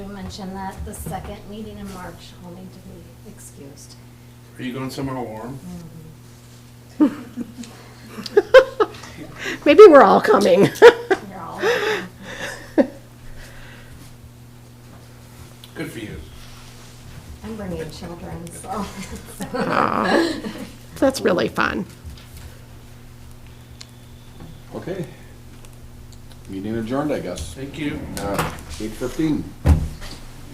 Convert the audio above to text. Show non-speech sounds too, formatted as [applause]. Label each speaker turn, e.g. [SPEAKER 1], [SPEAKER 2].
[SPEAKER 1] mention that the second meeting in March will need to be excused.
[SPEAKER 2] Are you going somewhere warm?
[SPEAKER 3] Maybe we're all coming.
[SPEAKER 1] You're all,
[SPEAKER 2] Good for you.
[SPEAKER 1] I'm bringing children, so.
[SPEAKER 3] [laughs] That's really fun.
[SPEAKER 4] Okay. Meeting adjourned, I guess.
[SPEAKER 2] Thank you.
[SPEAKER 4] Uh, eight fifteen.